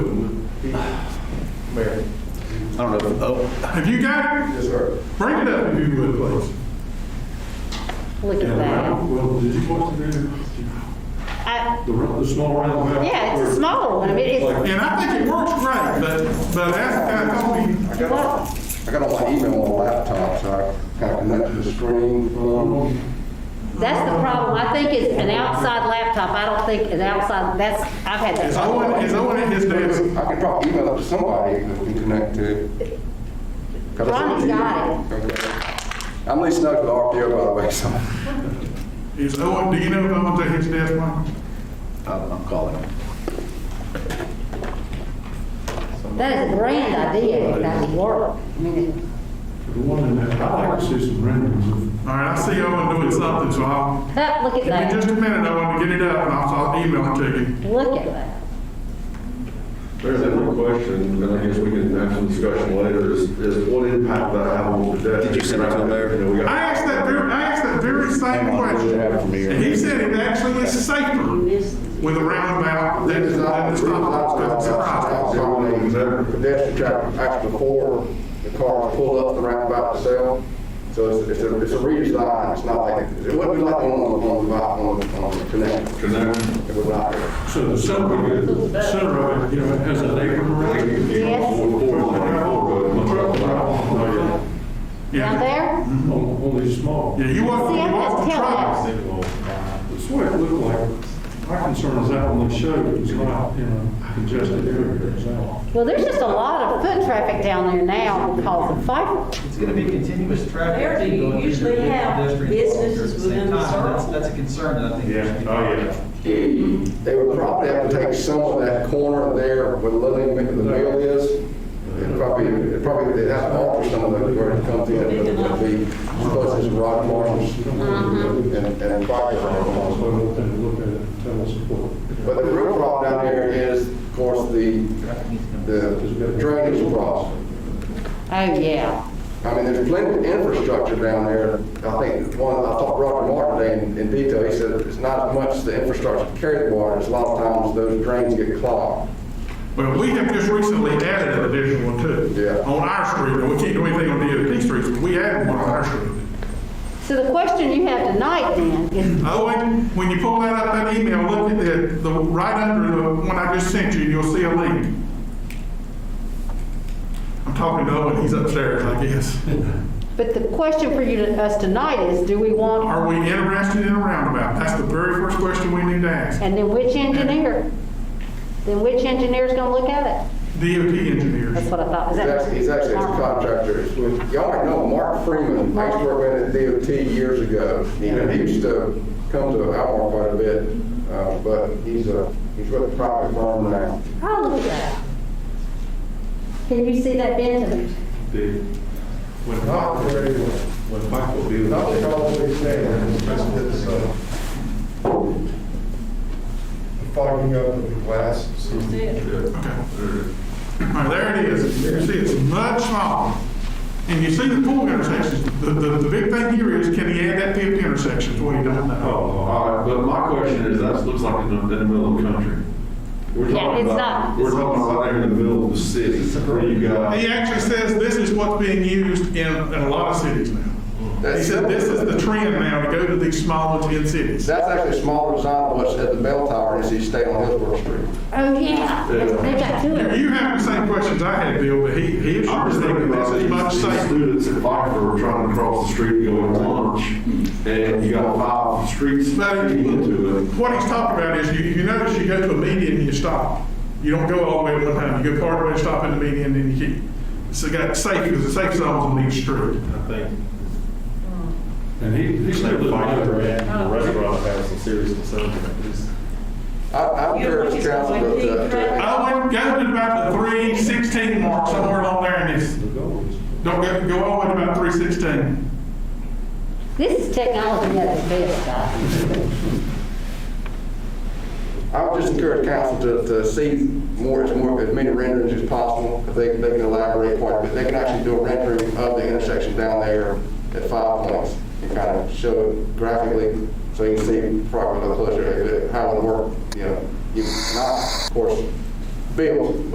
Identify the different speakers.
Speaker 1: don't know, if- oh,
Speaker 2: Have you got it?
Speaker 3: Yes, sir.
Speaker 2: Bring it up if you would, please.
Speaker 4: Look at
Speaker 3: And the
Speaker 4: that.
Speaker 3: round- Well, did you want to do
Speaker 4: I,
Speaker 3: the, round- the small roundabout?
Speaker 4: yeah, it's a small one. I mean, it's,
Speaker 2: And I think it works great, but, but ask the guy, told me,
Speaker 5: Oh. I got, I got all my email on my laptop, so I kind of connect to the screen. um,
Speaker 4: that's the problem. I think it's an outside laptop. I don't think an outside, that's, I've had
Speaker 2: is
Speaker 4: that.
Speaker 2: Owen, is Owen in his desk?
Speaker 5: I can drop email up to somebody that can connect to. 'Cause I
Speaker 4: Ronnie's
Speaker 5: said-
Speaker 4: got it.
Speaker 5: Okay. I'm Lee Snug with RPO, by the way, so.
Speaker 2: Is Owen, do you know if Owen's at his desk, Mike?
Speaker 1: I'm I'm calling.
Speaker 4: That is a grand idea. It doesn't work. I mean,
Speaker 3: The one in that, I'd like to see some renderings of
Speaker 2: All right, I see Owen doing something, so I'll,
Speaker 4: that, look at
Speaker 2: give me just
Speaker 4: that.
Speaker 2: a minute, Owen, to get it up, and I'll, I'll email it to you.
Speaker 4: Look at that.
Speaker 6: There's one question, and I guess we can have some discussion later, is, is what impact that have on the debt?
Speaker 1: Did you send it to the mayor?
Speaker 2: I asked that very, I asked that very same question. And he said it actually is safer with a roundabout than than the stop sign. That's surprising.
Speaker 5: Pedestrian traffic, actually before the cars pull up the roundabout itself. So it's, it's a, it's a redesign, it's not like, it wouldn't be like on, on, on, on, on, connect. It would not.
Speaker 3: So the center of it, center of it, you know, it has an apron around it.
Speaker 4: Yes. Down
Speaker 2: Yeah,
Speaker 4: there?
Speaker 3: Only small.
Speaker 2: yeah, you walk,
Speaker 4: See, I
Speaker 2: you walk
Speaker 4: just
Speaker 2: the
Speaker 4: tell
Speaker 2: truck.
Speaker 4: that.
Speaker 3: That's what it looked like. My concern is that when they showed it, it was not in a congested area. It's out.
Speaker 4: Well, there's just a lot of foot traffic down there now because of Pfeiffer.
Speaker 7: It's going to be continuous traffic.
Speaker 8: Where do you
Speaker 7: going through
Speaker 8: usually
Speaker 7: different
Speaker 8: have
Speaker 7: pedestrian corridors
Speaker 8: businesses
Speaker 7: at the same
Speaker 8: within the
Speaker 7: time. That's-
Speaker 8: circle?
Speaker 7: That's a concern that I think. we should be-
Speaker 5: They would probably have to take some of that corner there where the living, where the mill is. It'd probably, it'd probably, they'd have to alter some of it where it comes in, but it would be close to rock marshes and, and fire.
Speaker 3: So
Speaker 5: alarms.
Speaker 3: we'll have to look at it, and tell us what.
Speaker 5: But the real problem down there is, of course, the, the drainage problem.
Speaker 4: Oh, yeah.
Speaker 5: I mean, there's plenty of infrastructure down there. I think one, I talked to Roger Martin today in, in detail, he said it's not as much the infrastructure to carry the water, it's a lot of times those drains get clogged.
Speaker 2: Well, we have just recently added an additional one too.
Speaker 5: Yeah.
Speaker 2: On our street, and we can't do anything on the other streets, but we added one on our street.
Speaker 4: So the question you have tonight then is,
Speaker 2: Owen, when you pull that up, that email, look at the, the, right under the one I just sent you, you'll see a link. I'm talking to Owen, he's upstairs, I guess.
Speaker 4: but the question for you, to us tonight is, do we want,
Speaker 2: Are we interested in a roundabout? That's the very first question we need to ask.
Speaker 4: and then which engineer? Then which engineer's gonna look at it?
Speaker 2: DOT engineers.
Speaker 4: That's what I thought. Is
Speaker 5: He's
Speaker 4: that- Oh.
Speaker 5: actually, he's actually a contractor. It's with- Y'all already know Mark Freeman, I used to work with him at DOT years ago. You know, He used to come to Almar quite a bit, uh, but he's a, he's with a private firm now.
Speaker 4: Oh, look at that. Can you see that Benton?
Speaker 5: Not very well. Not at all, they say.
Speaker 9: It's, uh, Fogging up of the glass.
Speaker 2: All right, there it is. You see, it's much smaller. And you see the pool intersections. The, the, the big thing here is, can he add that fifth intersection? Is what he don't
Speaker 6: Oh,
Speaker 2: know.
Speaker 6: all right, but my question is, that looks like in the, in the middle of the country. We're
Speaker 4: Yeah,
Speaker 6: talking
Speaker 4: it's
Speaker 6: about-
Speaker 4: not.
Speaker 6: We're talking about there in the middle of the city, where you got.
Speaker 2: He actually says this is what's being used in, in a lot of cities now. He
Speaker 5: That's-
Speaker 2: said this is the trend now to go to these smaller ten cities.
Speaker 5: That's actually a smaller design than what's at the bell tower, is he stayed on Hillsborough Street.
Speaker 4: Oh, yeah. They got two
Speaker 2: You
Speaker 4: of them.
Speaker 2: you have the same questions I had, Bill, but he, he
Speaker 6: I'm
Speaker 2: was
Speaker 6: just
Speaker 2: thinking
Speaker 6: thinking
Speaker 2: this
Speaker 6: about
Speaker 2: is much
Speaker 6: these, these
Speaker 2: safer.
Speaker 6: students at Viper were trying to cross the street going to lunch, and you got five streets
Speaker 2: But
Speaker 6: leading into it.
Speaker 2: what he's talking about is, you, you notice you go to a median and you stop. You don't go all the way at one time. You go part of the way, stop in the median, then you keep. So you got safe, there's a safe zones on each street.
Speaker 6: I think
Speaker 3: And he, he said the fire.
Speaker 9: restaurant has some serious concerns about this.
Speaker 5: I, I would encourage council to, to,
Speaker 2: Owen, go to about the three sixteen mark, somewhere along there in this. Don't go, go all the way to about three sixteen.
Speaker 4: This is technology at its best, guys.
Speaker 5: I would just encourage council to, to see more, as more, as many renderings as possible, if they, they can elaborate part, but they can actually do a rendering of the intersection down there at five points, and kind of show it graphically, so you can see properly the closure, how it worked, you know, you, not, of course, built,